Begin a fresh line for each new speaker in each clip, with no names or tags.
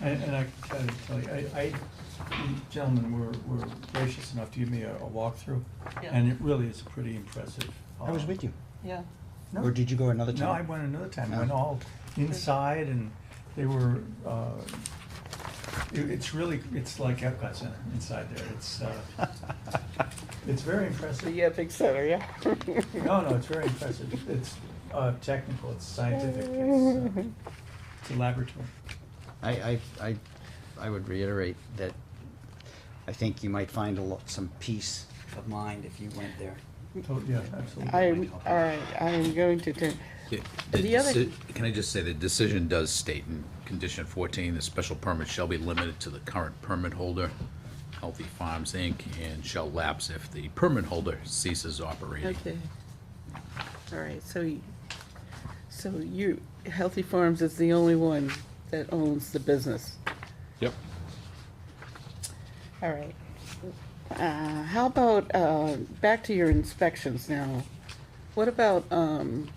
And, and I can tell you, I, I, you gentlemen were, were gracious enough to give me a, a walkthrough.
Yeah.
And it really is pretty impressive.
I was
um,
with you.
Yeah,
No.
Or did you go another time?
No, I went another time, I went
No.
all inside and they were, uh, it, it's really, it's like Epcot Center inside there, it's, uh, it's very impressive.
The Epic Center, yeah.
No, no, it's very impressive, it's, uh, technical, it's scientific, it's, uh, it's a laboratory.
I, I, I, I would reiterate that I think you might find a lot, some peace of mind if you went there.
So, yeah, absolutely.
I-
I'm, all right, I am going to, do-
The-
The other-
deci- Can I just say, the decision does state in condition fourteen, the special permit shall be limited to the current permit holder, Healthy Farms Inc., and shall lapse if the permit holder ceases operating.
okay. All right, so, you- so you, Healthy Farms is the only one that owns the business.
Yep.
All right. Uh, How about, uh, back to your inspections now. What about um,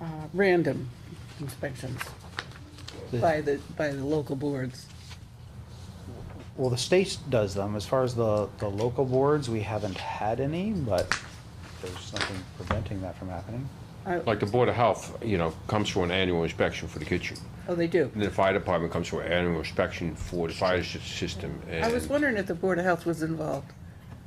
uh, random inspections by the, by the local boards?
Well, the state does them. As far as the, the local boards, we haven't had any, but there's nothing preventing that from happening.
I-
Like the Board of Health, you know, comes for an annual inspection for the kitchen.
Oh, they do?
And the fire department comes for an annual inspection for the fire sy- system and.
I was wondering if the Board of Health was involved.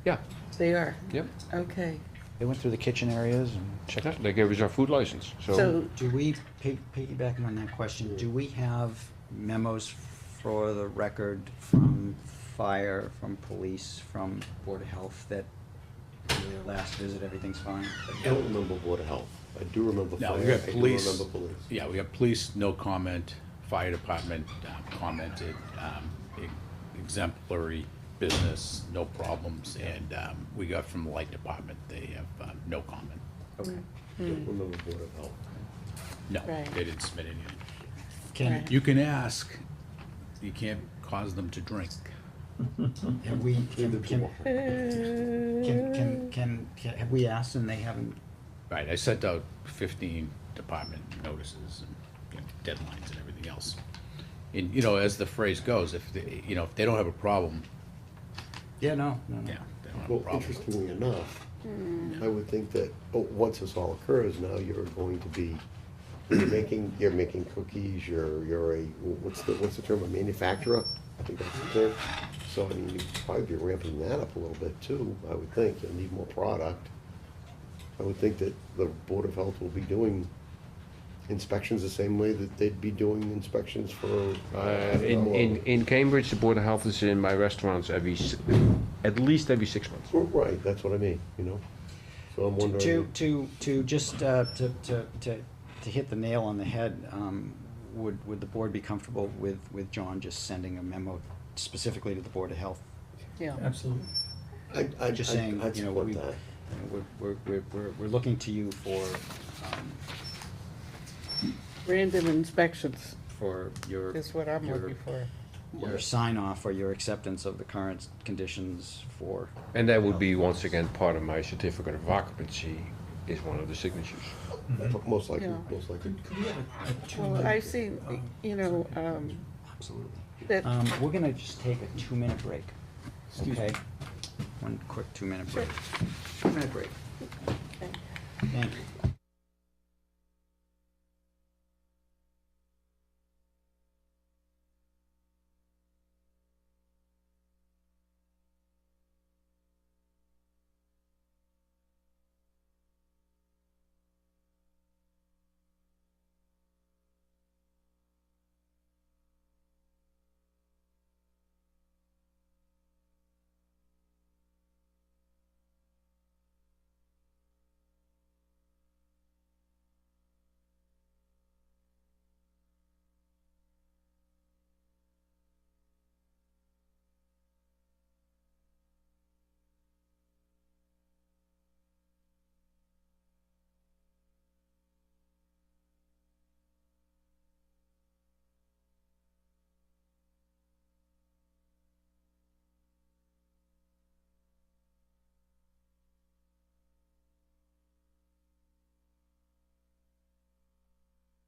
Yeah,
They are?
yep.
Okay.
They went through the kitchen areas and checked.
Yeah, They gave us our food license, so
So,
Do we, pig- piggybacking on that question, do we have memos for the record from fire, from police, from Board of Health that their last visit, everything's fine?
I don't remember Board of Health. I do remember fire.
Now, we
I
got
do
police,
remember police.
yeah, we got police, no comment, fire department um, commented, um, e- exemplary business, no problems, and um, we got from the light department, they have um, no comment.
Okay.
I don't remember Board of Health.
No,
Right.
they didn't submit anything.
Can,
Right.
You can ask, you can't cause them to drink.
have we,
Neither
can,
do
can,
I.
can, can, can, can- have we asked and they haven't
Right, I sent out fifteen department notices and you know, deadlines and everything else. And, you know, as the phrase goes, if, they- you know, if they don't have a problem,
Yeah, no, no, no.
yeah, they don't have a
Well,
problem.
interestingly enough, I would think that, oh, once this all occurs, now you're going to be, you're making, you're making cookies, you're, you're a, what's the, what's the term, a manufacturer? I think that's the term. So, I mean, you'd probably be ramping that up a little bit too, I would think. You'll need more product. I would think that the Board of Health will be doing inspections the same way that they'd be doing inspections for.
uh, in, in, in Cambridge, the Board of Health is in my restaurants every, s- at least every six months.
Right, that's what I mean, you know? So I'm
To,
wondering.
to, to, to just, uh, to, to, to, to hit the nail on the head, um, would, would the board be comfortable with, with John just sending a memo specifically to the Board of Health?
yeah.
uh,
Absolutely.
I, I,
Just
I-
saying,
I'd
you know,
support
we, you
that.
know, we're, we're, we're, we're, we're looking to you for, um,
Random inspections
for your.
is what I'm
your-
looking for.
Your sign off or your acceptance of the current conditions for,
And that would be, once again, part of my certificate of occupancy is one of the signatures.
Mm-hmm.
Most likely,
Yeah.
most likely.
Could, could we have a- a two
Well, I've
minute-
seen, you know, um,
absolutely.
that,
Um, we're gonna just take a two-minute break,
Excuse me.
okay? One quick two-minute
Sure.
break. Two-minute break.
Okay.
Thank you.